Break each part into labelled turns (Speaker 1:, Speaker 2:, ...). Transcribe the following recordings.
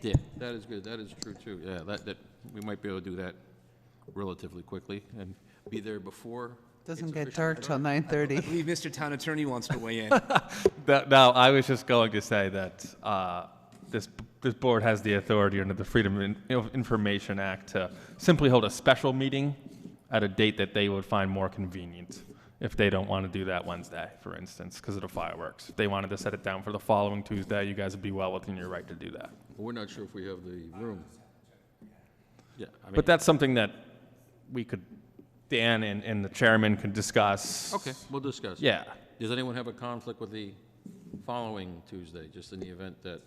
Speaker 1: Yeah, that is good, that is true too, yeah, that, that, we might be able to do that relatively quickly and be there before.
Speaker 2: Doesn't
Speaker 1: it's
Speaker 2: get
Speaker 1: officially
Speaker 2: dark till
Speaker 1: done.
Speaker 3: I
Speaker 2: 9:30.
Speaker 3: believe Mr. Town Attorney wants to weigh in.
Speaker 4: That, no, I was just going to say that uh, this this board has the authority under the Freedom in- of Information Act to simply hold a special meeting at a date that they would find more convenient. If they don't want to do that Wednesday, for instance, because of the fireworks, if they wanted to set it down for the following Tuesday, you guys would be well within your right to do that.
Speaker 1: We're not sure if we have the room. Yeah, I mean,
Speaker 4: But that's something that we could, Dan and, and the chairman could discuss.
Speaker 1: okay, we'll discuss.
Speaker 4: Yeah.
Speaker 1: Does anyone have a conflict with the following Tuesday, just in the event that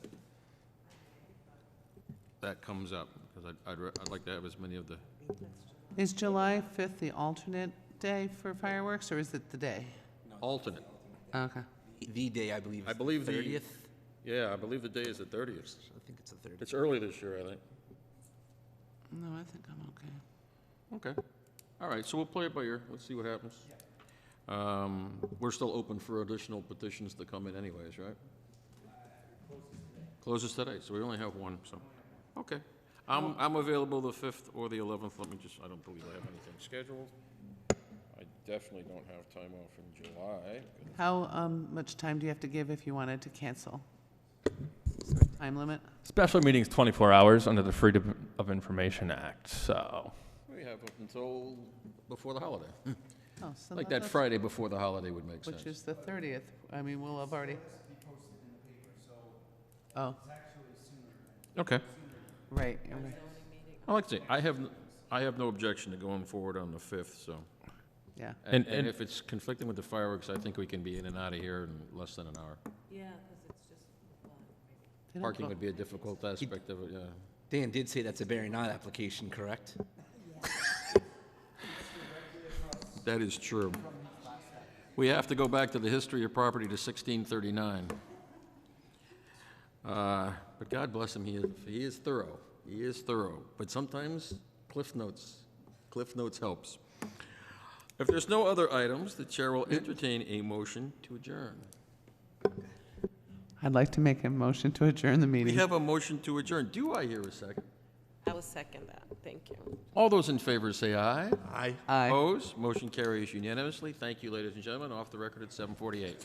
Speaker 1: that comes up? Because I'd, I'd, re- I'd like to have as many of the,
Speaker 2: Is July 5th the alternate day for fireworks, or is it the day?
Speaker 1: alternate. Oh,
Speaker 2: Okay.
Speaker 3: The day, I believe. is
Speaker 1: I believe the-
Speaker 3: 30th.
Speaker 1: Yeah, I believe the day is the thirtieth.
Speaker 3: I think it's the 30th.
Speaker 1: It's early this year, I think.
Speaker 2: No, I think I'm okay.
Speaker 1: Okay. All right, so we'll play it by ear. Let's see what happens. Um, We're still open for additional petitions to come in anyways, right? Closes today, so we only have one, so, okay. I'm, I'm available the 5th or the 11th. Let me just, I don't believe I have anything scheduled. I definitely don't have time off in July.
Speaker 2: How um, much time do you have to give if you wanted to cancel? Is there a Time limit?
Speaker 4: Special meetings 24 hours under the Freedom of Information Act, so.
Speaker 1: We have up until before the holiday.
Speaker 2: Oh, so
Speaker 1: Like
Speaker 2: not
Speaker 1: that
Speaker 2: the-
Speaker 1: Friday before the holiday would make sense.
Speaker 2: Which is the 30th. I mean, we'll have already. Oh,
Speaker 1: Okay.
Speaker 2: right, you're right.
Speaker 1: I like to say, I have, n- I have no objection to going forward on the 5th, so.
Speaker 2: yeah.
Speaker 1: And,
Speaker 4: And-
Speaker 1: and
Speaker 4: and-
Speaker 1: if it's conflicting with the fireworks, I think we can be in and out of here in less than an hour.
Speaker 5: Yeah, because it's just a lot.
Speaker 2: They don't
Speaker 1: Parking
Speaker 2: go-
Speaker 1: would be a difficult aspect of it, yeah.
Speaker 3: Dan did say that's a Barry Knott application, correct?
Speaker 1: That is true. We have to go back to the history of property to 1639. Uh, But God bless him, he is, he is thorough, he is thorough. But sometimes Cliff Notes, Cliff Notes helps. If there's no other items, the chair will entertain a motion to adjourn.
Speaker 2: I'd like to make a motion to adjourn the
Speaker 1: We
Speaker 2: meeting.
Speaker 1: have a motion to adjourn. Do I hear a second?
Speaker 5: I will second that. Thank you.
Speaker 1: All those in favor say aye. Aye.
Speaker 2: Aye.
Speaker 1: Oh, Opposed? Motion carries unanimously. Thank you, ladies and gentlemen. Off the record at 7:48.